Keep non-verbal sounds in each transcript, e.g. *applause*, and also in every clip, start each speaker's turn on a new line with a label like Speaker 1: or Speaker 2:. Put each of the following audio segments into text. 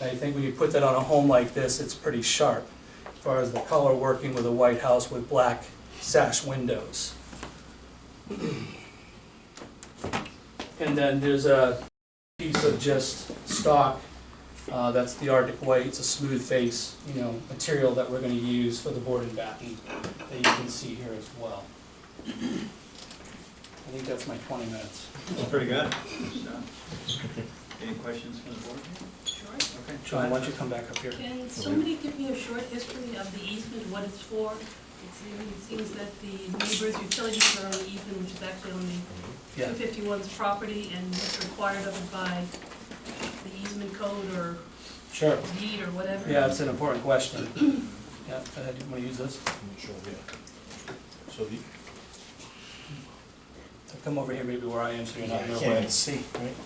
Speaker 1: And I think when you put that on a home like this, it's pretty sharp, as far as the color working with a white house with black sash windows. And then there's a piece of just stock, uh, that's the Arctic White, it's a smooth face, you know, material that we're gonna use for the board and batten, that you can see here as well. I think that's my twenty minutes.
Speaker 2: That's pretty good. So, Any questions from the board? Okay.
Speaker 1: John, why don't you come back up here?
Speaker 3: Can somebody give me a short history of the easement, what it's for? It seems- It seems that the neighbors' utilities are on the easement, which is actually on the
Speaker 1: Yeah.
Speaker 3: 251's property, and what's required of it by the easement code or
Speaker 1: Sure.
Speaker 3: deed or whatever.
Speaker 1: Yeah, it's an important question. Yeah, go ahead, you wanna use this?
Speaker 4: Sure, yeah. So the.
Speaker 1: So Come over here maybe where I am, so you're not in the
Speaker 4: Can't
Speaker 1: way.
Speaker 4: even see, right?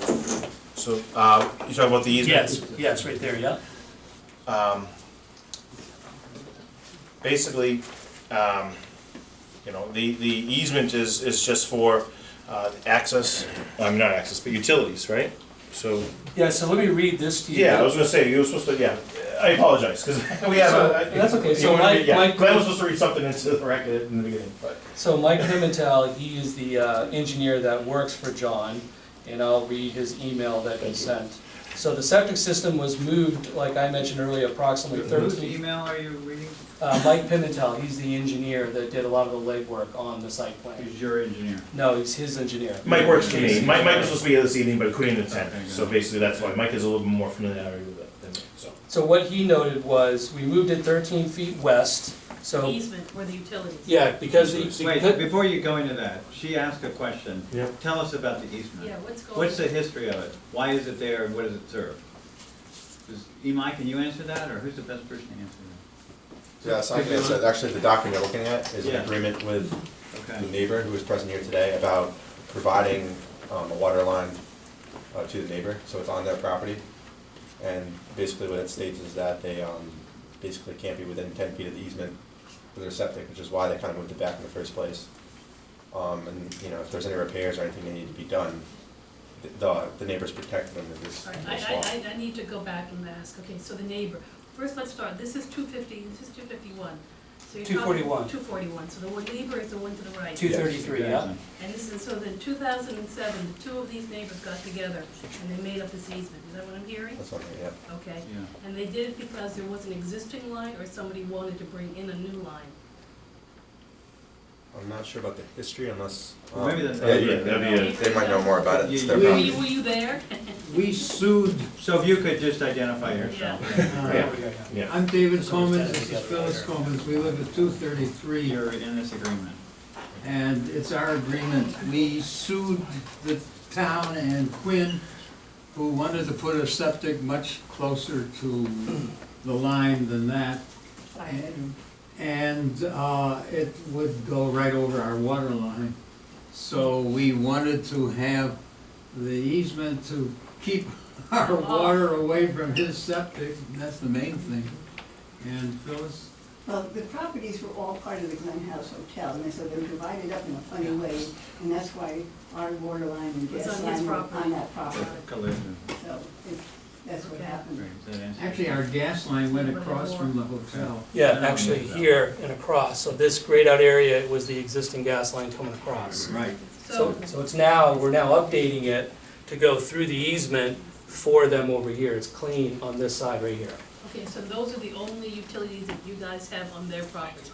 Speaker 4: So, uh, you talk about the
Speaker 1: Yes,
Speaker 4: easement?
Speaker 1: yes, right there, yeah.
Speaker 4: Um, basically, um, you know, the, the easement is, is just for, uh, access, I mean, not access, but utilities, right? So,
Speaker 1: Yeah, so let me read this to you.
Speaker 4: yeah, I was gonna say, you were supposed to, yeah, I apologize, because *laughs* we have a.
Speaker 1: So, that's okay, so
Speaker 4: you wanna be-
Speaker 1: Mike-
Speaker 4: yeah,
Speaker 1: Mike-
Speaker 4: Glenn was supposed to read something into the record in the beginning, but.
Speaker 1: So Mike Pimentel, he is the uh, engineer that works for John, and I'll read his email that he
Speaker 4: Thank you.
Speaker 1: sent. So the septic system was moved, like I mentioned earlier, approximately
Speaker 2: Whose
Speaker 1: thirteen.
Speaker 2: email are you reading?
Speaker 1: Uh, Mike Pimentel, he's the engineer that did a lot of the legwork on the site plan.
Speaker 2: Who's your engineer?
Speaker 1: No, he's his engineer.
Speaker 4: Mike works for me. Mike, Mike was supposed to be here this evening, but couldn't attend.
Speaker 2: Okay, good.
Speaker 4: So basically, that's why Mike is a little bit more familiar with it than me, so.
Speaker 1: So what he noted was, we moved it thirteen feet west,
Speaker 3: The
Speaker 1: so.
Speaker 3: Easement or the utilities.
Speaker 1: Yeah, because. the-
Speaker 2: Wait, before you go into that, she asked a question.
Speaker 4: Yeah.
Speaker 2: Tell us about the
Speaker 3: Yeah,
Speaker 2: easement.
Speaker 3: what's going?
Speaker 2: What's the history of it? Why is it there and what does it serve? Does- Imai, can you answer that, or who's the best person to answer
Speaker 5: Yes, I can answer that. Actually, the document we're looking at is
Speaker 2: Yeah.
Speaker 5: an agreement with
Speaker 2: that?
Speaker 5: the
Speaker 2: Okay.
Speaker 5: neighbor who is present here today about providing um, a water line uh, to the neighbor, so it's on their property. And basically what it states is that they um, basically can't be within ten feet of the easement for their septic, which is why they kind of moved it back in the first place. Um, And, you know, if there's any repairs or anything that need to be done, th- the the neighbors protect them in this
Speaker 3: All right,
Speaker 5: in
Speaker 3: I,
Speaker 5: this law.
Speaker 3: I, I, I need to go back and ask, okay, so the neighbor, first let's start, this is two fifty, this is two fifty-one.
Speaker 1: 241.
Speaker 3: Two forty-one, so the one neighbor is the one to the right.
Speaker 1: Two thirty-three, yeah.
Speaker 3: And this is, so then two thousand and seven, the two of these neighbors got together and they made up this easement, is that what I'm hearing?
Speaker 5: That's on there, yeah.
Speaker 3: Okay,
Speaker 2: Yeah.
Speaker 3: and they did it because there was an existing line or somebody wanted to bring in a new line?
Speaker 5: I'm not sure about the history unless.
Speaker 2: Well, maybe
Speaker 5: um,
Speaker 2: that's-
Speaker 5: yeah, you-
Speaker 4: that'd be
Speaker 5: They might know more about it. It's their
Speaker 2: You-
Speaker 3: Were
Speaker 5: property.
Speaker 3: you, were you there?
Speaker 6: We sued, uh,
Speaker 2: So if you could just identify yourself.
Speaker 3: Yeah.
Speaker 4: Yeah. Yeah.
Speaker 6: I'm David Comans, this is Phyllis Comans, we live at two thirty-three,
Speaker 2: You're in this agreement.
Speaker 6: and it's our agreement. We sued the town and Quinn, who wanted to put a septic much closer to the line than that. And- And, uh, it would go right over our water line. So we wanted to have the easement to keep *laughs* our water away from his septic, that's the main thing. And Phyllis?
Speaker 7: Well, the properties were all part of the Glen House Hotel, and so they were divided up in a funny way, and that's why our water line and
Speaker 3: It's
Speaker 7: gas
Speaker 3: on his
Speaker 7: line were
Speaker 3: property.
Speaker 7: on that property.
Speaker 3: Right.
Speaker 2: Collision.
Speaker 7: So it- that's what
Speaker 3: Okay.
Speaker 2: Great,
Speaker 7: happened.
Speaker 2: does that answer?
Speaker 6: Actually, our gas line went across from the hotel.
Speaker 1: Yeah, actually here and across, so this grayed out area it was the existing gas line coming across.
Speaker 2: Right.
Speaker 1: So,
Speaker 3: So,
Speaker 1: so it's now, we're now updating it to go through the easement for them over here, it's clean on this side right here.
Speaker 3: okay, so those are the only utilities that you guys have on their property?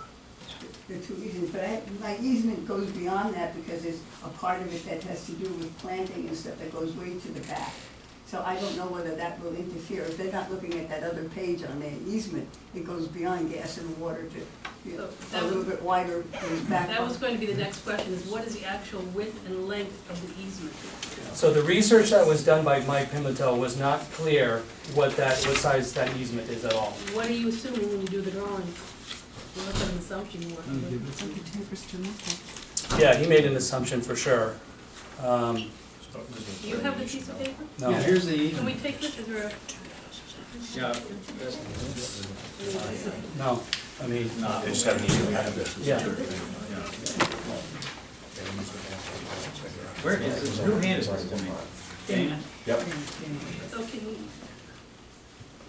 Speaker 7: The two easements, but I, my easement goes beyond that because there's a part of it that has to do with planting and stuff that goes way to the back. So I don't know whether that will interfere. If they're not looking at that other page on their easement, it goes beyond gas and water to, you know,
Speaker 3: Oh, That
Speaker 7: a
Speaker 3: was-
Speaker 7: little bit wider than back.
Speaker 3: That was
Speaker 7: on-
Speaker 3: going to be the next question, is what is the actual width and length of the easement?
Speaker 1: So the research that was done by Mike Pimentel was not clear what that, what size that easement is at all.
Speaker 3: What are you assuming when you do the drawing? What's an assumption you work with?
Speaker 1: Yeah, he made an assumption for sure. Um,
Speaker 4: so it doesn't-
Speaker 3: Do you have the piece of paper?
Speaker 1: no.
Speaker 6: Yeah, here's the
Speaker 3: Can we
Speaker 6: easement.
Speaker 3: take this as a?
Speaker 2: Yeah,
Speaker 1: No, I mean,
Speaker 2: no,
Speaker 4: They just have an easement.
Speaker 1: yeah,
Speaker 2: yeah. Where is this, who handed this to me? Dana?
Speaker 5: Yep.
Speaker 3: So can,